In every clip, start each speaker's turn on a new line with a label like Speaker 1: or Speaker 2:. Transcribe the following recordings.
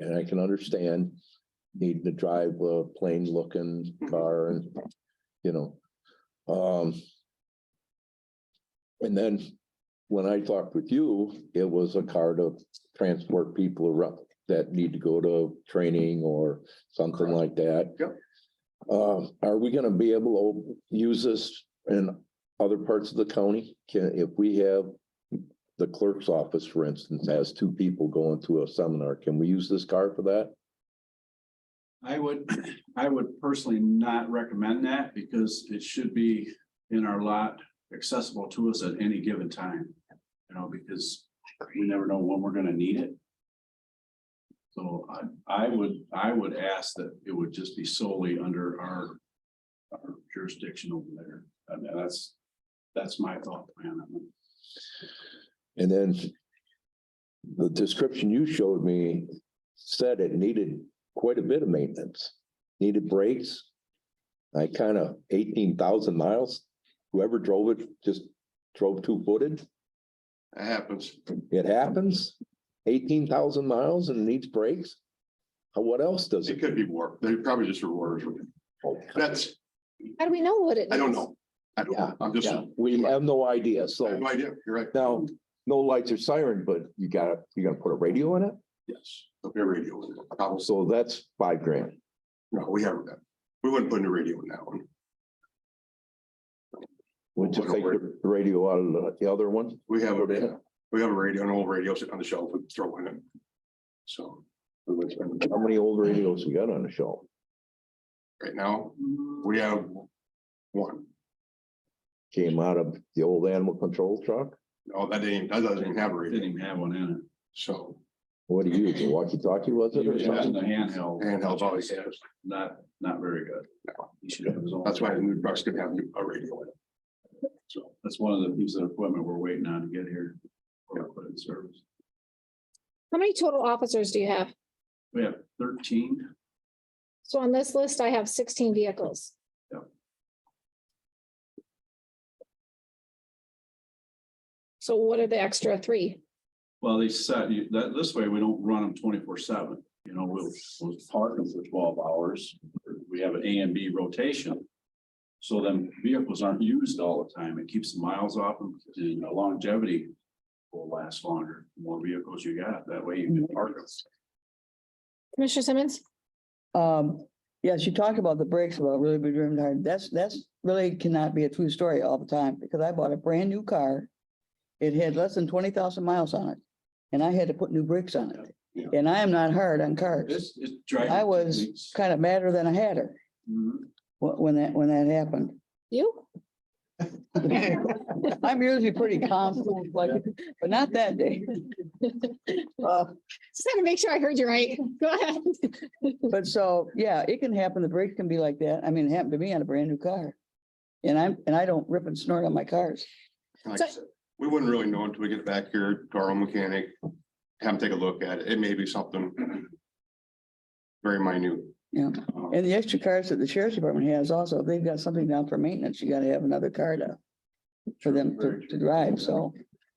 Speaker 1: And I can understand needing to drive a plain looking car and, you know, um. And then when I talked with you, it was a car to transport people around that need to go to training or something like that.
Speaker 2: Yep.
Speaker 1: Um, are we gonna be able to use this in other parts of the county? Can, if we have the clerk's office, for instance, has two people going to a seminar, can we use this car for that?
Speaker 2: I would, I would personally not recommend that because it should be in our lot accessible to us at any given time. You know, because we never know when we're gonna need it. So I, I would, I would ask that it would just be solely under our our jurisdiction over there. And that's, that's my thought plan. on it.
Speaker 1: And then the description you showed me said it needed quite a bit of maintenance, needed brakes. I kind of eighteen thousand miles, whoever drove it just drove two footed,
Speaker 3: It happens.
Speaker 1: it happens. Eighteen thousand miles and needs brakes. Uh, What else does
Speaker 3: It
Speaker 1: it?
Speaker 3: could be more. They probably just rewarded. That's,
Speaker 4: How do we know what it?
Speaker 3: I don't
Speaker 4: is?
Speaker 3: know. I don't,
Speaker 1: Yeah,
Speaker 3: know. I'm just,
Speaker 1: Yeah,
Speaker 3: I
Speaker 1: we have no idea, so.
Speaker 3: have no idea. You're right.
Speaker 1: Now, no lights or siren, but you gotta, you're gonna put a radio in it,
Speaker 3: Yes. The radio. Probably,
Speaker 1: so that's five grand.
Speaker 3: no, we haven't. done- We wouldn't put in a radio in that one.
Speaker 1: Would you take the radio out of the- the other one?
Speaker 3: We have,
Speaker 1: Put in.
Speaker 3: a we have a radio, an old radio sitting on the shelf and throw in it. So. we wouldn't spend it.
Speaker 1: How many old radios we got on the shelf?
Speaker 3: Right now, we have one.
Speaker 1: Came out of the old animal control truck?
Speaker 3: Oh, that didn't, that doesn't even have a
Speaker 2: Didn't
Speaker 3: radio.
Speaker 2: even have one in
Speaker 3: So
Speaker 1: What do you, use, a walkie-talkie was
Speaker 2: it.
Speaker 1: it
Speaker 2: He
Speaker 1: or
Speaker 2: was
Speaker 1: something?
Speaker 2: using the handheld.
Speaker 3: handhelds always, have.
Speaker 2: Not, not very good. He should have his own.
Speaker 3: that's why the new trucks could have a radio in it.
Speaker 2: So that's one of the pieces of equipment we're waiting on to get here. Or put in service.
Speaker 4: How many total officers do you have?
Speaker 2: We have thirteen.
Speaker 4: So on this list, I have sixteen vehicles.
Speaker 2: Yep.
Speaker 4: So what are the extra three?
Speaker 2: Well, they said you- that this way we don't run them twenty-four seven. You know, we'll, we'll park them for twelve hours. We have an A and B rotation. So then vehicles aren't used all the time. It keeps the miles off them and the longevity will last longer. The More vehicles you got, that way you can park them.
Speaker 4: Commissioner Simmons?
Speaker 5: Um, yes, you talked about the brakes about really be driven hard. That's, that's really cannot be a true story all the time because I bought a brand new car. It had less than twenty thousand miles on it and I had to put new brakes on
Speaker 3: Yeah.
Speaker 5: it. And I am not hard on cars.
Speaker 2: This is driving.
Speaker 5: I was
Speaker 2: techniques.
Speaker 5: Kind of madder than a hatter
Speaker 2: Mhm.
Speaker 5: wh- when that, when that happened.
Speaker 4: You?
Speaker 5: I'm usually pretty calm, like, but not that day. Uh,
Speaker 4: Just had to make sure I heard you right. Go ahead.
Speaker 5: But so, yeah, it can happen. The brakes can be like that. I mean, it happened to me on a brand new car. And I'm, and I don't rip and snort on my cars.
Speaker 3: Like I
Speaker 4: So-
Speaker 3: said, we wouldn't really know until we get back here to our own mechanic, have him take a look at it. It may be something very minute.
Speaker 5: Yeah.
Speaker 3: Um,
Speaker 5: And the extra cars that the sheriff's department has also, if they've got something down for maintenance, you gotta have another car to. For them to, to drive, so,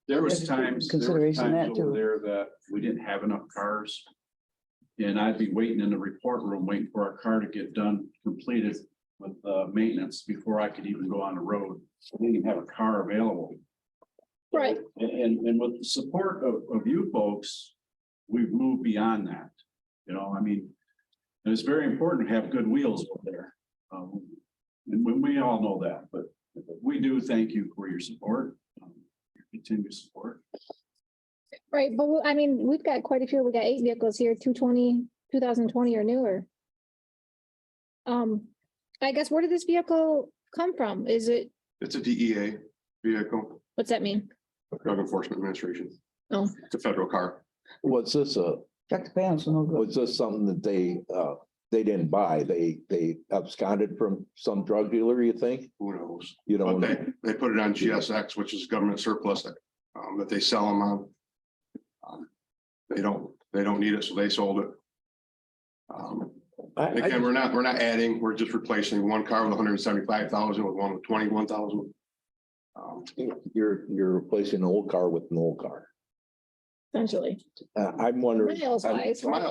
Speaker 2: There was
Speaker 5: That's a good
Speaker 2: times, there was
Speaker 5: consideration,
Speaker 2: times
Speaker 5: that,
Speaker 2: over
Speaker 5: too.
Speaker 2: there that we didn't have enough cars. And I'd be waiting in the report room, waiting for our car to get done, completed with uh maintenance before I could even go on the road. We didn't even have a car available.
Speaker 4: Right.
Speaker 2: And- And, and with the support of, of you folks, we've moved beyond that. You know, I mean, and it's very important to have good wheels over there. Um, and we, we all know that, but we do thank you for your support, um, your continued support.
Speaker 4: Right, but we- I mean, we've got quite a few. We got eight vehicles here, 220 2020 or newer. Um, I guess where did this vehicle come from? Is it,
Speaker 3: It's a DEA vehicle,
Speaker 4: what's that mean?
Speaker 3: Drug Enforcement Administration.
Speaker 4: Oh.
Speaker 3: It's a federal car.
Speaker 1: Was this a,
Speaker 5: check the panels, no good.
Speaker 1: was this something that they, uh, they didn't buy? They, they absconded from some drug dealer, you think?
Speaker 3: Who knows?
Speaker 1: You
Speaker 3: But
Speaker 1: don't
Speaker 3: they,
Speaker 1: know?
Speaker 3: they put it on GSX, which is government surplus that, um, that they sell them on. Um, They don't, they don't need it, so they sold it. Um, and
Speaker 1: I- I-
Speaker 3: Again, we're not, we're not adding, we're just replacing one car with hundred and seventy-five thousand with one with twenty-one thousand. Um,
Speaker 1: You're, you're replacing an old car with an old car.
Speaker 4: Essentially.
Speaker 1: Uh, I'm wondering.
Speaker 4: Miles
Speaker 1: I'm-
Speaker 4: wise, right?
Speaker 3: miles.